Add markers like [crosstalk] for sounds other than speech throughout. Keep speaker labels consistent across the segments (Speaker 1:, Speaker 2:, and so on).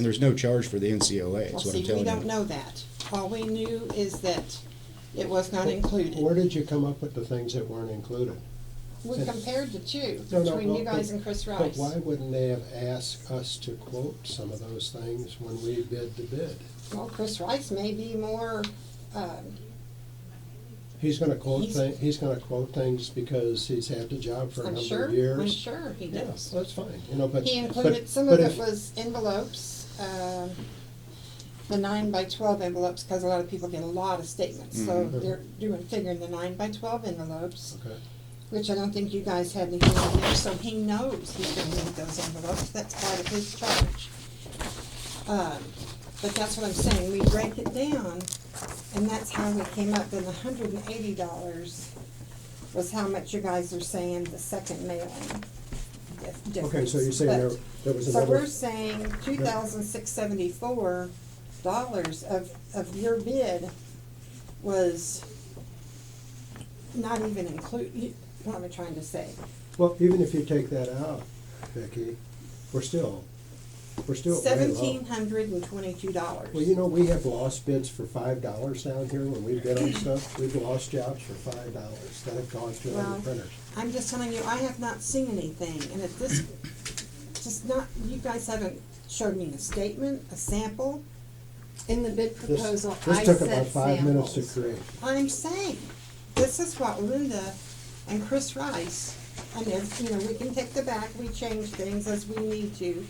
Speaker 1: And there's no charge for the NCLA,
Speaker 2: Well,
Speaker 1: is what
Speaker 2: see,
Speaker 1: I'm
Speaker 2: we
Speaker 1: telling
Speaker 2: don't
Speaker 1: you.
Speaker 2: know that. All we knew is that it was not
Speaker 3: Where
Speaker 2: included.
Speaker 3: did you come up with the things that weren't included?
Speaker 2: We compared the two,
Speaker 3: No, no,
Speaker 2: between you
Speaker 3: but-
Speaker 2: guys and Chris
Speaker 3: But
Speaker 2: Rice.
Speaker 3: why wouldn't they have asked us to quote some of those things when we bid the bid?
Speaker 2: Well, Chris Rice may be more, um,
Speaker 3: He's gonna quote
Speaker 2: He's-
Speaker 3: thing, he's gonna quote things because he's had the job for a
Speaker 2: I'm
Speaker 3: number
Speaker 2: sure,
Speaker 3: of
Speaker 2: I'm
Speaker 3: years.
Speaker 2: sure he
Speaker 3: Yeah,
Speaker 2: does.
Speaker 3: that's fine, you know, but.
Speaker 2: He
Speaker 3: but-
Speaker 2: included, some of
Speaker 3: but
Speaker 2: it
Speaker 3: if-
Speaker 2: was envelopes, um, the nine by twelve envelopes, because a lot of people get a lot of statements. So
Speaker 3: Mhm.
Speaker 2: they're doing, figuring the nine by twelve envelopes,
Speaker 3: Okay,
Speaker 2: which I don't think you guys had anything on there, so he knows he's gonna need those envelopes. That's part of his charge. Um, But that's what I'm saying, we break it down, and that's how we came up, then the hundred and eighty dollars was how much you guys are saying the second mailing. dif-
Speaker 3: okay, so you're
Speaker 2: difference.
Speaker 3: saying
Speaker 2: But-
Speaker 3: there, there was
Speaker 2: so we're
Speaker 3: another,
Speaker 2: saying two thousand six seventy-four dollars of, of your bid was not even include, you- what am I trying to say?
Speaker 3: well, even if you take that out, Vicki, we're still, we're still way low.
Speaker 2: Seventeen hundred and twenty-two dollars.
Speaker 3: Well, you know, we have lost bids for five dollars down here when we bid on stuff. We've lost jobs for five dollars that have gone to
Speaker 2: Well-
Speaker 3: other printers.
Speaker 2: I'm just telling you, I have not seen anything, and if this, just not, you guys haven't showed me a statement, a sample.
Speaker 4: In the bid
Speaker 3: This-
Speaker 4: proposal,
Speaker 3: This
Speaker 4: I
Speaker 3: took about
Speaker 4: sent
Speaker 3: five minutes to
Speaker 4: samples.
Speaker 3: create.
Speaker 2: I'm saying, this is what Linda and Chris Rice, and if, you know, we can take the back, we change things as we need to.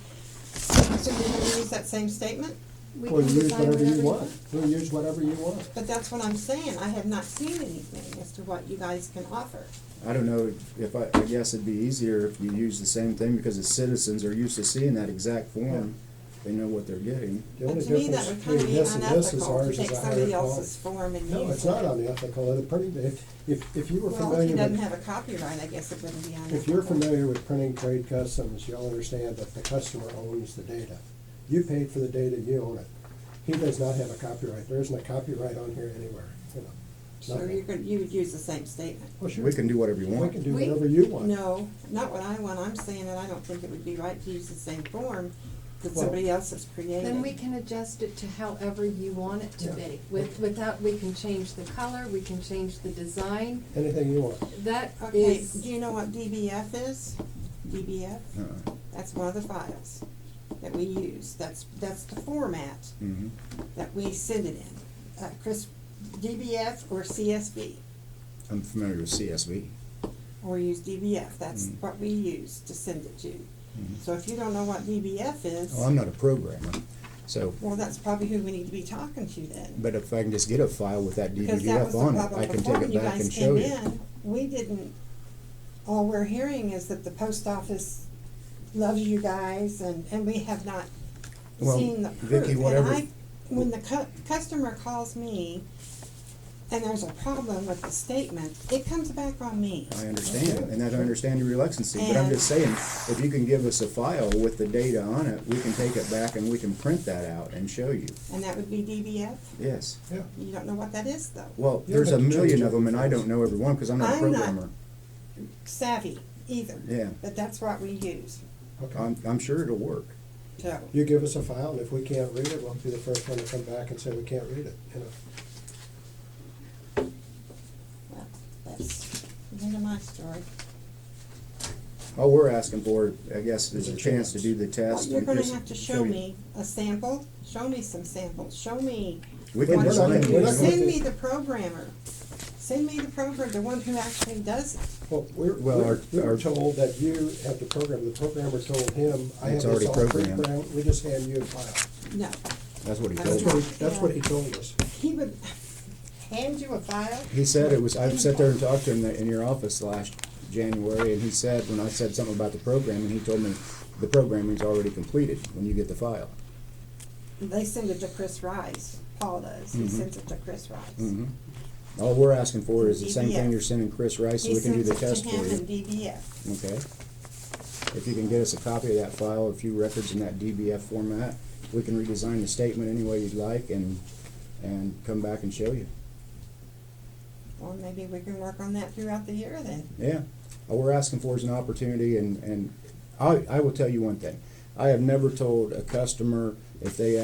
Speaker 2: So you're gonna use that same statement?
Speaker 4: We
Speaker 3: Well,
Speaker 4: can
Speaker 3: use
Speaker 4: decide
Speaker 3: whatever you
Speaker 4: whatever-
Speaker 3: want. We'll use whatever you want.
Speaker 2: But that's what I'm saying, I have not seen anything as to what you guys can offer.
Speaker 1: I don't know if I, I guess it'd be easier if you use the same thing because the citizens are used to seeing that exact form. They know what they're getting.
Speaker 3: The
Speaker 2: But
Speaker 3: only
Speaker 2: to me, that
Speaker 3: difference
Speaker 2: would kinda
Speaker 3: between
Speaker 2: be
Speaker 3: this and this is
Speaker 2: unethical to
Speaker 3: ours
Speaker 2: take
Speaker 3: is a higher
Speaker 2: somebody else's
Speaker 3: quality.
Speaker 2: form and use it.
Speaker 3: No, it's not unethical. The printing, if, if, if you were
Speaker 2: Well, if he
Speaker 3: familiar
Speaker 2: doesn't
Speaker 3: with,
Speaker 2: have a copyright, I guess it wouldn't be on.
Speaker 3: if you're familiar with printing trade customs, you'll understand that the customer owns the data. You paid for the data, you own it. He does not have a copyright. There isn't a copyright on here anywhere, you know.
Speaker 2: So
Speaker 3: nothing.
Speaker 2: you're gonna, you would use the same statement?
Speaker 3: Well, sure.
Speaker 1: We can do whatever you
Speaker 3: We can
Speaker 1: want.
Speaker 3: do
Speaker 4: We-
Speaker 3: whatever you want.
Speaker 2: No, not what I want, I'm saying that I don't think it would be right to use the same form that
Speaker 3: Well-
Speaker 2: somebody else has created.
Speaker 4: Then we can adjust it to however you want it to
Speaker 3: Yeah.
Speaker 4: be. With, without, we can change the color, we can change the design.
Speaker 3: Anything you want.
Speaker 4: That
Speaker 2: Okay, do
Speaker 4: is,
Speaker 2: you know what DBF is? DBF,
Speaker 1: Uh-uh.
Speaker 2: that's one of the files that we use, that's, that's the format
Speaker 1: Mhm.
Speaker 2: that we send it in. Uh, Chris, DBF or CSV,
Speaker 1: I'm familiar with CSV.
Speaker 2: or use DBF, that's
Speaker 1: Mm.
Speaker 2: what we use to send it to.
Speaker 1: Mhm.
Speaker 2: So if you don't know what DBF is.
Speaker 1: Well, Oh, I'm not a programmer, so,
Speaker 2: Well, that's probably who we need to be talking to then.
Speaker 1: but if I can just get a file with that
Speaker 2: Because that
Speaker 1: DVDF
Speaker 2: was the
Speaker 1: on it,
Speaker 2: problem
Speaker 1: I can
Speaker 2: before
Speaker 1: take
Speaker 2: when
Speaker 1: it
Speaker 2: you
Speaker 1: back
Speaker 2: guys
Speaker 1: and show
Speaker 2: came
Speaker 1: you.
Speaker 2: in. We didn't, all we're hearing is that the post office loves you guys and, and we have not
Speaker 1: Well,
Speaker 2: seen the proof.
Speaker 1: Vicky,
Speaker 2: And
Speaker 1: whatever-
Speaker 2: I- When the cu- customer calls me and there's a problem with the statement, it comes back on me.
Speaker 1: I understand, and that I understand your reluctancy, but I'm
Speaker 2: And-
Speaker 1: just saying, if you can give us a file with the data on it, we can take it back and we can print that out and show you.
Speaker 2: And that would be DBF.
Speaker 1: Yes.
Speaker 3: Yeah.
Speaker 2: You don't know what that is though.
Speaker 1: Well,
Speaker 3: Yeah,
Speaker 1: there's a
Speaker 3: but you
Speaker 1: million
Speaker 3: change
Speaker 1: of them, and I
Speaker 3: everything.
Speaker 1: don't know every one because I'm not a
Speaker 2: I'm not-
Speaker 1: programmer.
Speaker 2: Savvy either.
Speaker 1: Yeah.
Speaker 2: But that's what we use,
Speaker 3: Okay.
Speaker 1: I'm, I'm sure it'll work.
Speaker 2: so.
Speaker 3: Um, You give us a file, and if we can't read it, we'll be the first one to come back and say we can't read it, you know.
Speaker 2: Well, that's the end of my story.
Speaker 1: All we're asking for, I guess, is a chance to do the
Speaker 2: Well,
Speaker 1: test.
Speaker 2: you're
Speaker 1: and
Speaker 2: gonna
Speaker 1: just
Speaker 2: have to show me a sample, show me some samples, show me.
Speaker 1: We
Speaker 3: We're
Speaker 1: can
Speaker 2: what-
Speaker 3: not-
Speaker 1: design
Speaker 3: we're not
Speaker 1: it.
Speaker 3: gonna-
Speaker 2: Send me the programmer, send me the programmer, the one who actually does it.
Speaker 3: Well, we're,
Speaker 1: Well,
Speaker 3: we're
Speaker 1: our-
Speaker 3: we were
Speaker 1: our-
Speaker 3: told that you have to program, the programmer told him, I have
Speaker 1: It's
Speaker 3: this
Speaker 1: already
Speaker 3: all
Speaker 1: programmed.
Speaker 3: pre-programmed, we just hand you a file.
Speaker 2: No, [laughs]
Speaker 1: That's what he
Speaker 2: That's
Speaker 1: told
Speaker 3: That's
Speaker 1: me.
Speaker 3: what, he- that's what he told us.
Speaker 2: he would hand you a file.
Speaker 1: He said it was, I sat there and talked to him in your office last January, and he said, when I said something about the programming, he told me the programming's already completed when you get the file.
Speaker 2: They send it to Chris Rice, Paul does, he
Speaker 1: Mhm.
Speaker 2: sends it to Chris Rice.
Speaker 1: Mhm. All we're asking for is the same
Speaker 2: DBF.
Speaker 1: thing you're sending Chris Rice, so
Speaker 2: He
Speaker 1: we can do
Speaker 2: sends
Speaker 1: the
Speaker 2: it to
Speaker 1: test for
Speaker 2: him in
Speaker 1: you.
Speaker 2: DBF,
Speaker 1: Okay? If you can get us a copy of that file, a few records in that DBF format, we can redesign the statement any way you'd like and, and come back and show you.
Speaker 2: well, maybe we can work on that throughout the year then.
Speaker 1: Yeah, all we're asking for is an opportunity, and, and I, I will tell you one thing. I have never told a customer If they